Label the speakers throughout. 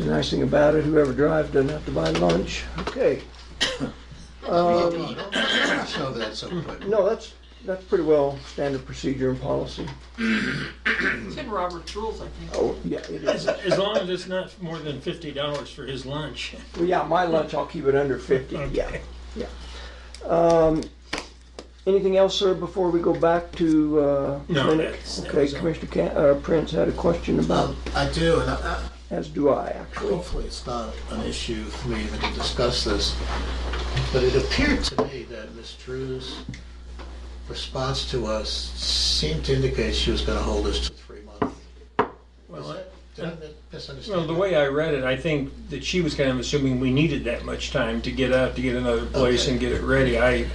Speaker 1: nice thing about it, whoever drives doesn't have to buy lunch. Okay. Um,
Speaker 2: So that's so quick.
Speaker 1: no, that's, that's pretty well standard procedure and policy.
Speaker 3: It's in Robert's rules, I think.
Speaker 1: Oh, yeah, it is.
Speaker 4: As long as it's not more than fifty dollars for his lunch.
Speaker 1: Well, yeah, my lunch, I'll keep it under fifty, yeah, yeah. Um, anything else, sir, before we go back to, uh?
Speaker 4: No,
Speaker 1: clinic?
Speaker 4: that's- that
Speaker 1: Okay,
Speaker 4: was all.
Speaker 1: Commissioner Can, uh, Prince had a question about,
Speaker 2: Um, I do, and I-
Speaker 1: as do I,
Speaker 2: I-
Speaker 1: actually.
Speaker 2: hopefully it's not an issue for me even to discuss this, but it appeared to me that Ms. Drew's response to us seemed to indicate she was going to hold us to three months. Was
Speaker 4: Well,
Speaker 2: it? Did I mi- misunderstand?
Speaker 4: Well, the way I read it, I think that she was kind of assuming we needed that much time to get out to get another place
Speaker 2: Okay.
Speaker 4: and get it ready. I,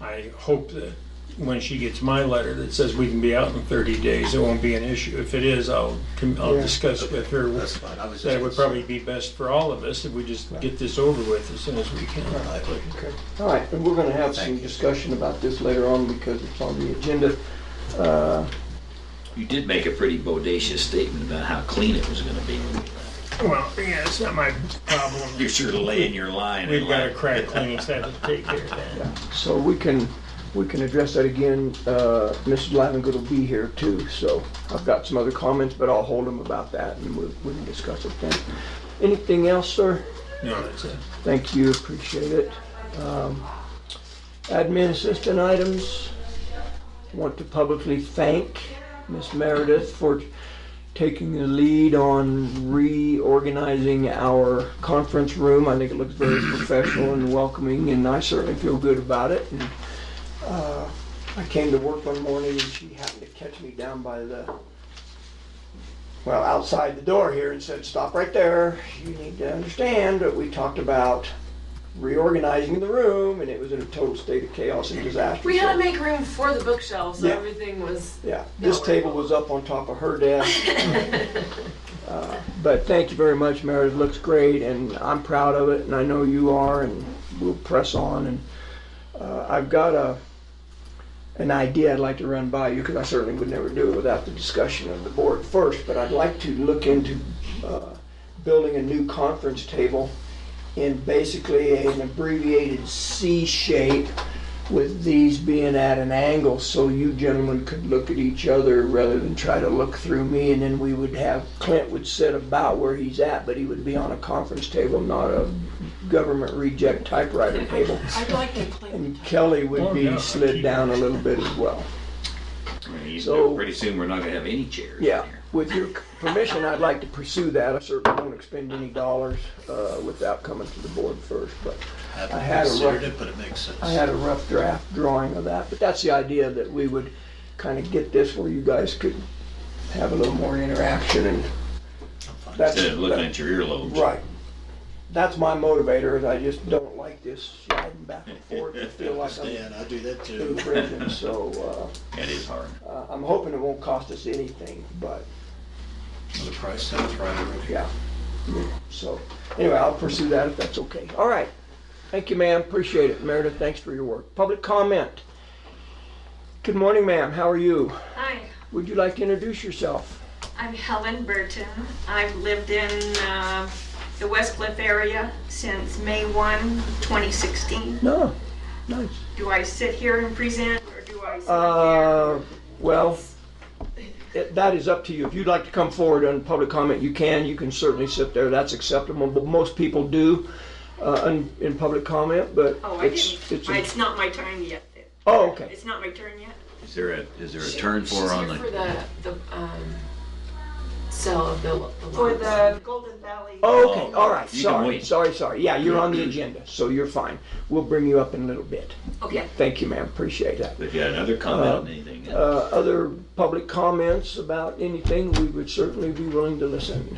Speaker 4: I hope that when she gets my letter that says we can be out in thirty days, it won't be an issue. If it is, I'll, com- I'll
Speaker 1: Yeah.
Speaker 4: discuss with her.
Speaker 2: That's fine, I was just.
Speaker 4: That would probably be best for all of us if we just get this over with as soon as we can.
Speaker 2: I agree.
Speaker 1: Okay, all right, and we're gonna have some
Speaker 2: Thank you.
Speaker 1: discussion about this later on because it's on the agenda. Uh,
Speaker 5: You did make a pretty bodacious statement about how clean it was going to be.
Speaker 4: Well, yeah, it's not my problem.
Speaker 5: You're sure to lay in your line.
Speaker 4: We've got a crack cleaning staff to take care of that.
Speaker 1: so we can, we can address that again, uh, Mrs. Lavengood will be here too, so I've got some other comments, but I'll hold them about that and we'll, we can discuss it then. Anything else, sir?
Speaker 4: No, that's it.
Speaker 1: Thank you, appreciate it. Um, Admin assistant items, want to publicly thank Miss Meredith for taking the lead on reorganizing our conference room. I think it looks very professional and welcoming, and I certainly feel good about it. And, uh, I came to work one morning and she happened to catch me down by the well, outside the door here and said, stop right there. You need to understand that we talked about reorganizing the room and it was in a total state of chaos and disaster.
Speaker 3: We had to
Speaker 1: So,
Speaker 3: make room for the bookshelves, so
Speaker 1: Yeah.
Speaker 3: everything was.
Speaker 1: Yeah, this table was up on top of her desk. Uh, But thank you very much, Meredith. Looks great and I'm proud of it and I know you are and we'll press on and uh, I've got a, an idea I'd like to run by you because I certainly would never do it without the discussion of the board first, but I'd like to look into uh, building a new conference table in basically an abbreviated C shape with these being at an angle so you gentlemen could look at each other rather than try to look through me and then we would have Clint would sit about where he's at, but he would be on a conference table, not a government reject typewriter table.
Speaker 3: I'd like to claim.
Speaker 1: And Kelly would
Speaker 4: Oh,
Speaker 1: be
Speaker 4: no,
Speaker 1: slid
Speaker 4: keep-
Speaker 1: down a little bit as well. So-
Speaker 5: So pretty soon we're not going to have any chairs. in
Speaker 1: Yeah,
Speaker 5: here.
Speaker 1: with your permission, I'd like to pursue that. I certainly won't expend any dollars uh, without coming to the board first, but I
Speaker 2: Haven't
Speaker 1: had a
Speaker 2: considered
Speaker 1: rough-
Speaker 2: it, but it makes sense.
Speaker 1: I had a rough draft drawing of that. But that's the idea, that we would kind of get this where you guys could have a little more interaction and
Speaker 2: I'm fine.
Speaker 1: that's.
Speaker 5: Instead of looking at your earlobes.
Speaker 1: Right. That's my motivator, is I just don't like this sliding back and forth. I feel like I'm
Speaker 2: Dan, I do that
Speaker 1: in
Speaker 2: too.
Speaker 1: prison, so
Speaker 5: That is hard.
Speaker 1: uh, uh, I'm hoping it won't cost us anything, but
Speaker 2: The price sounds right. already.
Speaker 1: Yeah. So, anyway, I'll pursue that if that's okay. All right. Thank you, ma'am. Appreciate it. Meredith, thanks for your work. Public comment. Good morning, ma'am. How are you?
Speaker 6: Hi,
Speaker 1: Would you like to introduce yourself?
Speaker 6: I'm Helen Burton. I've lived in uh, the West Cliff area since May 1, 2016.
Speaker 1: No. Nice.
Speaker 6: Do I sit here and present or do I sit
Speaker 1: Uh, well, it- that is up to you. If you'd like to come forward on public comment, you can. You can certainly sit there. That's acceptable. But most people do uh, in, in public comment, but
Speaker 6: here? Oh, I
Speaker 1: it's, it's,
Speaker 6: didn't. It's, not my turn yet.
Speaker 1: oh, okay.
Speaker 6: It's not my turn yet.
Speaker 5: Is there a is there a turn
Speaker 3: She's
Speaker 5: for on
Speaker 3: here
Speaker 5: the?
Speaker 3: For the, the, um, sale of the.
Speaker 6: For the Golden Valley.
Speaker 1: Okay,
Speaker 5: Oh,
Speaker 1: all right,
Speaker 5: you can
Speaker 1: sorry,
Speaker 5: wait.
Speaker 1: sorry, sorry. Yeah, you're on the agenda, so you're fine. We'll bring you up in a little bit.
Speaker 3: Okay.
Speaker 1: Thank you, ma'am, appreciate that.
Speaker 5: If you had another comment
Speaker 1: Uh,
Speaker 5: on anything,
Speaker 1: Uh, other public comments about anything, we would certainly be willing to listen.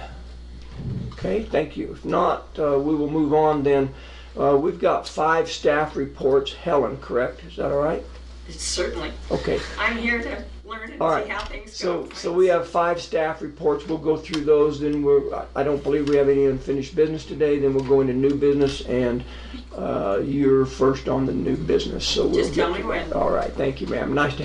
Speaker 1: Okay, thank you. If not, uh, we will move on then. Uh, we've got five staff reports. Helen, correct? Is that all right?
Speaker 6: Certainly.
Speaker 1: Okay.
Speaker 6: I'm here to learn and
Speaker 1: All right.
Speaker 6: see how things
Speaker 1: So,
Speaker 6: go.
Speaker 1: so we have five staff reports. We'll go through those, then we're, I- I don't believe we have any unfinished business today. Then we'll go into new business and, uh, you're first on the new business, so we'll.
Speaker 6: Just tell me when.
Speaker 1: All right, thank you, ma'am. Nice to